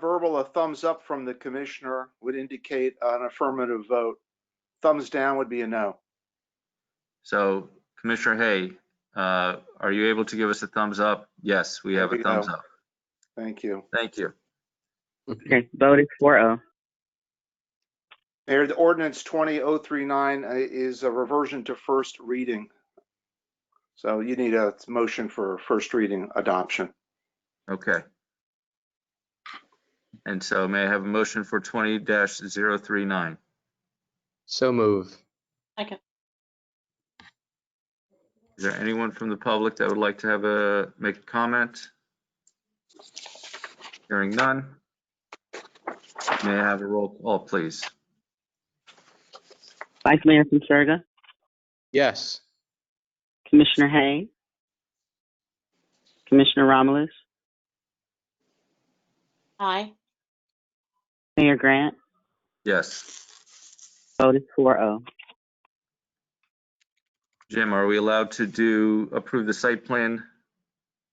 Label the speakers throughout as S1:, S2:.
S1: verbal, a thumbs up from the commissioner would indicate an affirmative vote. Thumbs down would be a no.
S2: So Commissioner Hay, uh, are you able to give us a thumbs up? Yes, we have a
S1: We
S2: thumbs
S1: have.
S2: up.
S1: Thank you.
S2: Thank you.
S3: Okay, voted four oh.
S1: Mayor, the ordinance 20039 uh, is a reversion to first reading. So you need a motion for first reading adoption.
S2: Okay. And so may I have a motion for twenty 39
S4: So move.
S2: Is there anyone from the public that would like to have a, make a comment? Hearing none. May I have a roll call, please?
S3: Vice Mayor Conserga,
S4: Yes.
S3: Commissioner Hay, Commissioner Romulus,
S5: Aye.
S3: Mayor Grant,
S2: Yes.
S3: voted four oh.
S2: Jim, are we allowed to do, approve the site plan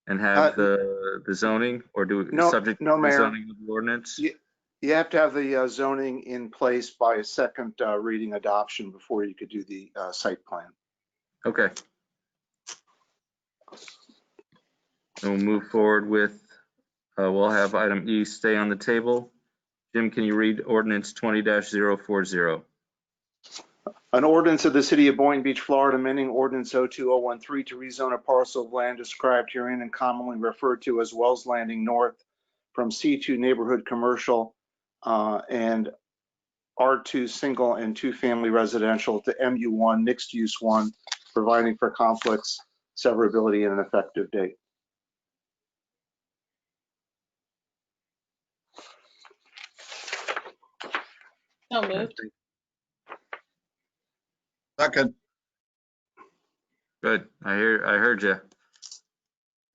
S2: and
S1: Uh,
S2: have the, the zoning or do?
S1: No,
S2: subject to
S1: no,
S2: the
S1: Mayor.
S2: zoning of the Ordinance?
S1: Ye- You have to have the uh, zoning in place by a second uh, reading adoption before you could do the uh, site plan.
S2: Okay. And we'll move forward with, uh, we'll have item E stay on the table. Jim, can you read ordinance twenty 40
S1: An ordinance of the city of Boynton Beach, Florida, amending ordinance 02013 to rezone a parcel of land described herein and commonly referred to as Wells Landing North from C2 neighborhood commercial uh, and R2 single and two-family residential to MU1 mixed-use one, providing for conflicts, severability, and an effective date.
S5: So moved.
S6: Second,
S2: Good, I hear, I heard you.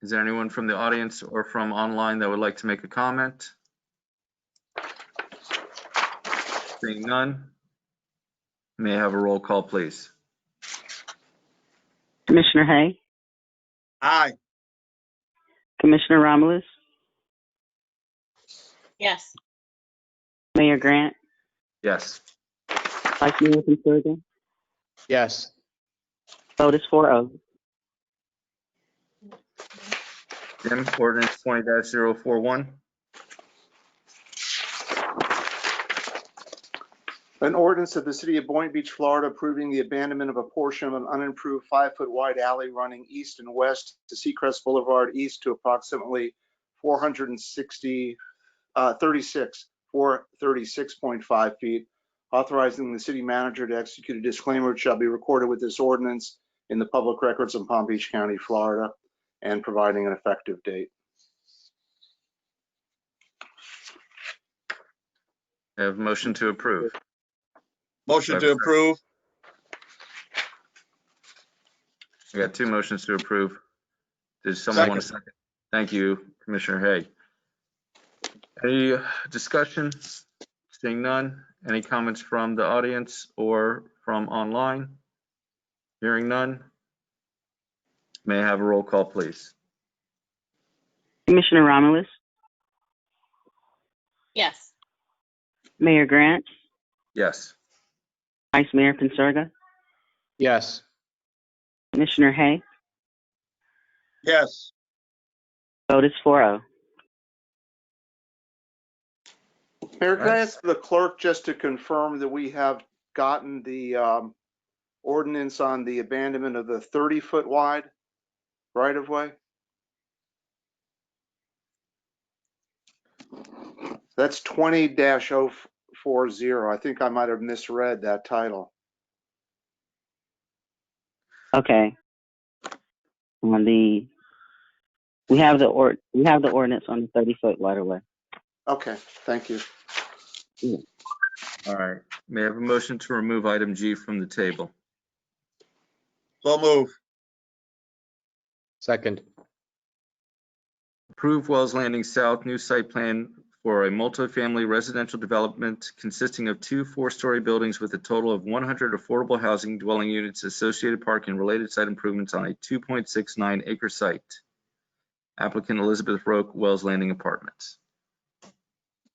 S2: Is there anyone from the audience or from online that would like to make a comment? Seeing none. May I have a roll call, please?
S3: Commissioner Hay,
S6: aye.
S3: Commissioner Romulus,
S5: Yes.
S3: Mayor Grant,
S2: Yes.
S3: Vice Mayor Conserga,
S4: Yes.
S3: voted four oh.
S2: Jim, ordinance twenty 41
S1: An ordinance of the city of Boynton Beach, Florida approving the abandonment of a portion of an unimproved five-foot wide alley running east and west to Seacrest Boulevard East to approximately 460, uh, 36, 436.5 feet, authorizing the city manager to execute a disclaimer which shall be recorded with this ordinance in the public records in Palm Beach County, Florida, and providing an effective date.
S2: I have a motion to approve.
S6: Motion to
S2: Second.
S6: approve,
S2: We got two motions to approve. Does someone want to second? Thank you, Commissioner Hay. Any discussion? Seeing none. Any comments from the audience or from online? Hearing none. May I have a roll call, please?
S3: Commissioner Romulus,
S5: Yes.
S3: Mayor Grant,
S2: Yes.
S3: Vice Mayor Conserga,
S4: Yes.
S3: Commissioner Hay,
S6: yes.
S3: voted four oh.
S1: Mayor, can I
S2: Right.
S1: ask the clerk just to confirm that we have gotten the um, ordinance on the abandonment of the 30-foot wide right-of-way? That's 20-040. I think I might have misread that title.
S3: Okay. On the, we have the ord, we have the ordinance on the thirty foot waterway.
S1: Okay, thank you.
S2: All right. May I have a motion to remove item G from the table?
S6: So move,
S4: Second.
S2: Approve Wells Landing South new site plan for a multifamily residential development consisting of two four-story buildings with a total of 100 affordable housing dwelling units, associated park and related site improvements on a 2.69 acre site. Applicant Elizabeth Roque, Wells Landing Apartments.